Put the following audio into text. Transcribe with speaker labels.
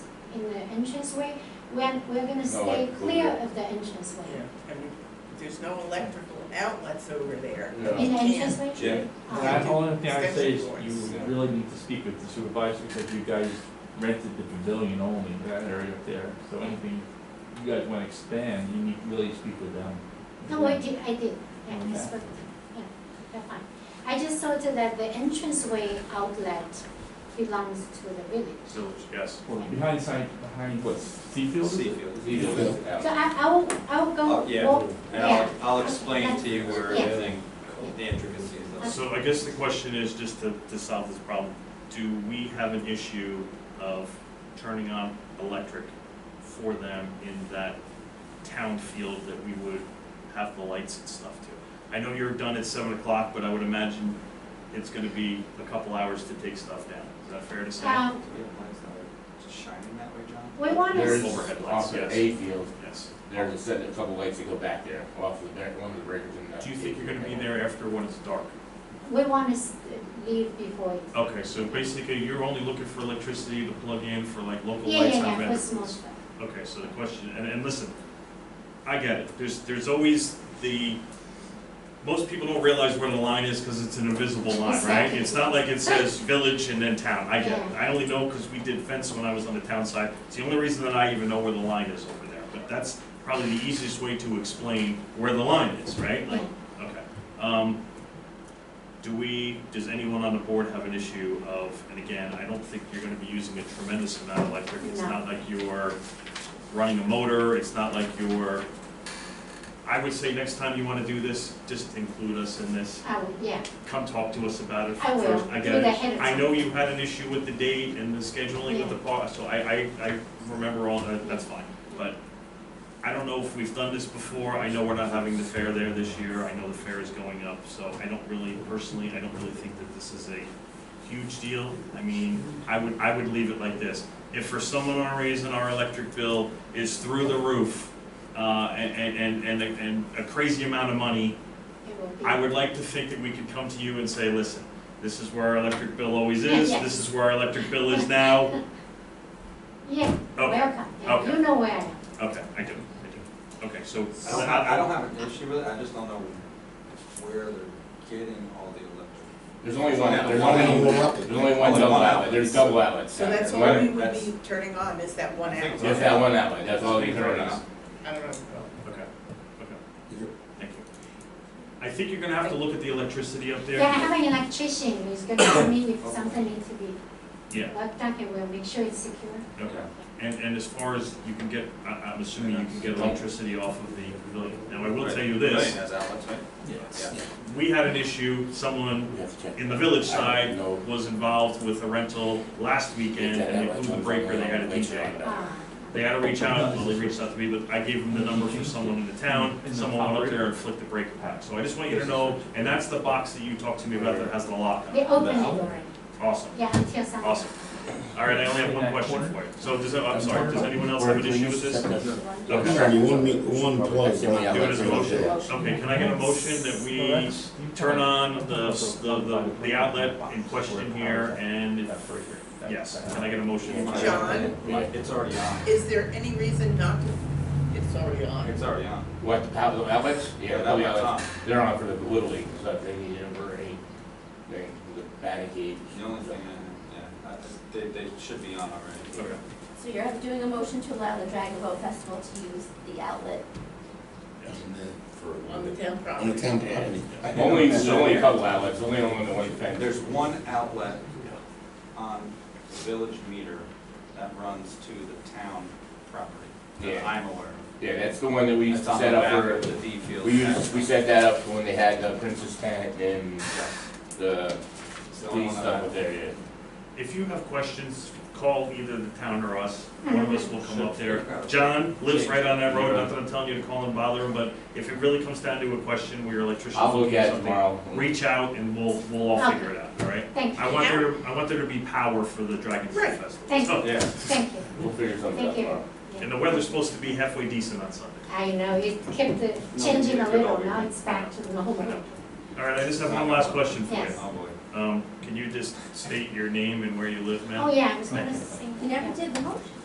Speaker 1: in the entranceway, we're, we're gonna stay
Speaker 2: like
Speaker 1: clear
Speaker 2: Google.
Speaker 1: of the entranceway.
Speaker 3: Yeah, and we- there's no electrical outlets over there.
Speaker 2: No.
Speaker 1: In the
Speaker 3: You can't.
Speaker 1: entranceway?
Speaker 2: Yeah.
Speaker 1: Oh.
Speaker 4: The only thing I say is
Speaker 3: Extension
Speaker 4: you
Speaker 2: cords.
Speaker 4: really need to speak with the supervisor because you guys rented the pavilion only, that area up there. So anything you guys want to expand, you need to really speak with them.
Speaker 1: No, I did, I did, yeah, I
Speaker 4: Okay.
Speaker 1: spoke, yeah, they're fine. I just thought that the entranceway outlet belongs to the village.
Speaker 5: Village, yes.
Speaker 4: Well, behind side, behind what, Seafield? is it?
Speaker 5: Seafield.
Speaker 2: Seafield.
Speaker 1: So I, I'll, I'll
Speaker 5: Oh,
Speaker 1: go
Speaker 5: yeah.
Speaker 1: walk,
Speaker 5: And I'll,
Speaker 1: yeah,
Speaker 5: I'll explain to you where
Speaker 1: Yeah.
Speaker 5: everything, the intricacies of.
Speaker 6: So I guess the question is, just to, to solve this problem, do we have an issue of turning on electric for them in that town field that we would have the lights and stuff to? I know you're done at seven o'clock, but I would imagine it's gonna be a couple hours to take stuff down, is that fair to say?
Speaker 1: um,
Speaker 5: Do we have lights that are shining that way, John?
Speaker 1: we wanna,
Speaker 2: There's
Speaker 1: s-
Speaker 6: overhead lights,
Speaker 2: off of
Speaker 6: yes.
Speaker 2: A field,
Speaker 6: Yes.
Speaker 2: they're just setting a couple lights to go back there, off of the back, one of the breakers in the.
Speaker 6: Do you think you're gonna be there after when it's dark?
Speaker 1: we wanna s- leave before it's,
Speaker 6: Okay, so basically, you're only looking for electricity to plug in for like local
Speaker 1: yeah,
Speaker 6: lights on
Speaker 1: yeah, yeah, for
Speaker 6: Bedford.
Speaker 1: small stuff.
Speaker 6: Okay, so the question, and, and listen, I get it, there's, there's always the, most people don't realize where the line is because it's an invisible line, right?
Speaker 1: Exactly.
Speaker 6: It's not like it says village and then town, I get it,
Speaker 1: Yeah.
Speaker 6: I only know because we did fence when I was on the town side, it's the only reason that I even know where the line is over there, but that's probably the easiest way to explain where the line is, right? Like, okay, um, do we, does anyone on the board have an issue of, and again, I don't think you're gonna be using a tremendous amount of electric, it's
Speaker 1: No.
Speaker 6: not like you're running a motor, it's not like you're, I would say next time you wanna do this, just include us in this,
Speaker 1: I would, yeah,
Speaker 6: come talk to us about it
Speaker 1: I will,
Speaker 6: first, I get
Speaker 1: with
Speaker 6: it.
Speaker 1: the head of
Speaker 6: I know you had an issue with the date and the scheduling with the
Speaker 1: Yeah.
Speaker 6: park, so I, I, I remember all that, that's fine, but I don't know if we've done this before, I know we're not having the fair there this year, I know the fair is going up, so I don't really, personally, I don't really think that this is a huge deal. I mean, I would, I would leave it like this, if for some unknown reason our electric bill is through the roof, uh, and, and, and, and- and a crazy amount of money,
Speaker 1: it will be.
Speaker 6: I would like to think that we could come to you and say, listen, this is where our electric bill always is,
Speaker 1: Yeah, yeah.
Speaker 6: this is where our electric bill is now.
Speaker 1: Yeah,
Speaker 6: Okay,
Speaker 1: welcome, yeah,
Speaker 6: okay.
Speaker 1: you know where I am.
Speaker 6: okay, I do, I do. Okay, so.
Speaker 5: I don't have, I don't have an issue with it, I just don't know where they're getting all the electric.
Speaker 2: There's only one, out- there's
Speaker 5: One
Speaker 2: only,
Speaker 7: outlet.
Speaker 2: there's only one
Speaker 5: Only
Speaker 2: double
Speaker 5: one
Speaker 2: outlet,
Speaker 5: outlet.
Speaker 2: there's double outlets.
Speaker 3: So that's
Speaker 2: One-
Speaker 3: what we would
Speaker 5: that's-
Speaker 3: be turning on, is that one
Speaker 5: I think
Speaker 3: outlet.
Speaker 2: Just that one outlet, that's all they turn on.
Speaker 3: I don't know.
Speaker 6: Okay, okay, thank you. I think you're gonna have to look at the electricity up there.
Speaker 1: Yeah, I have an electrician who's gonna come in if something needs to be
Speaker 6: Yeah,
Speaker 1: worked on, and we'll make sure it's secure.
Speaker 6: okay. And, and as far as you can get, I, I'm assuming you can get electricity off of the pavilion. Now, I will tell you
Speaker 5: Right,
Speaker 6: this,
Speaker 5: Pavilion has outlets, right?
Speaker 4: Yes.
Speaker 5: Yeah.
Speaker 6: we had an issue, someone
Speaker 2: You have to check.
Speaker 6: in the village
Speaker 2: I don't
Speaker 6: side
Speaker 2: know.
Speaker 6: was involved with a rental last weekend and they blew the breaker, they had a DJ.
Speaker 1: Ah,
Speaker 6: They had to reach out, well, they reached out to me, but I gave them the number for someone in the town, someone went up there and flicked the breaker pack. So I just want you to know, and that's the box that you talked to me about that has the lock on
Speaker 1: They
Speaker 6: it.
Speaker 1: open it already,
Speaker 6: Awesome,
Speaker 1: yeah, until some.
Speaker 6: awesome. All right, I only have one question for you. So does, I'm sorry, does anyone else have an issue with this? Okay.
Speaker 7: Only one, mi- one plug.
Speaker 2: That's the only
Speaker 7: right?
Speaker 6: Do it as a
Speaker 2: outlet.
Speaker 6: motion. Okay, can I get a motion that we turn on the, the, the outlet in question here and if Yes, can I get a motion?
Speaker 3: John,
Speaker 2: Yeah.
Speaker 5: It's already on.
Speaker 3: is there any reason not to, it's already on.
Speaker 5: It's already on.
Speaker 2: What, the power, the outlets? Yeah, the
Speaker 5: That
Speaker 2: power
Speaker 5: one's
Speaker 2: outlets,
Speaker 5: on.
Speaker 2: they're on for the Little League, so if they need it for any, they, the batting cage.
Speaker 5: The only thing, I- yeah, I- they, they should be on already.
Speaker 6: Okay.
Speaker 8: So you're doing a motion to allow the Dragon Boat Festival to use the outlet.
Speaker 7: And then for
Speaker 3: On the
Speaker 7: one-
Speaker 3: town
Speaker 7: On the
Speaker 3: property.
Speaker 7: town property.
Speaker 5: I know
Speaker 2: Only,
Speaker 5: that's
Speaker 2: there's only a
Speaker 5: there.
Speaker 2: couple outlets, only on the one
Speaker 5: And
Speaker 2: fence.
Speaker 5: There's one outlet on the village meter that runs to the town property, that
Speaker 2: Yeah.
Speaker 5: I'm aware of.
Speaker 2: Yeah, that's the one that we used
Speaker 5: That's
Speaker 2: to set
Speaker 5: on the
Speaker 2: up
Speaker 5: back
Speaker 2: for,
Speaker 5: of The D field.
Speaker 2: we used, we set that up for when they had the Princess Tent and the
Speaker 5: It's the only
Speaker 2: police
Speaker 5: one
Speaker 2: stuff
Speaker 5: that I-
Speaker 2: up there, yeah.
Speaker 6: If you have questions, call either the town or us. One of us will come up there. John lives right on that road, not that I'm telling you to call and bother him, but if it really comes down to a question where your electrician's
Speaker 2: I'll look
Speaker 6: looking
Speaker 2: at
Speaker 6: at
Speaker 2: it
Speaker 6: something,
Speaker 2: tomorrow.
Speaker 6: reach out and we'll, we'll all figure it out, all right?
Speaker 1: Thank
Speaker 6: I
Speaker 1: you,
Speaker 6: want there, I want there to be power for the Dragon Fruit
Speaker 3: Right.
Speaker 6: Festival.
Speaker 1: Thank
Speaker 6: So-
Speaker 5: Yeah.
Speaker 1: thank you,
Speaker 2: We'll figure something out
Speaker 1: thank you.
Speaker 2: tomorrow.
Speaker 1: Yeah.
Speaker 6: And the weather's supposed to be halfway decent on Sunday.
Speaker 1: I know, it kept uh, changing a little, now it's back to normal.
Speaker 6: All right, I just have one last question for
Speaker 1: Yes.
Speaker 6: you.
Speaker 5: Oh, boy.
Speaker 6: Um, can you just state your name and where you live, ma'am?
Speaker 1: Oh, yeah, I was gonna say.
Speaker 8: You never did the motion.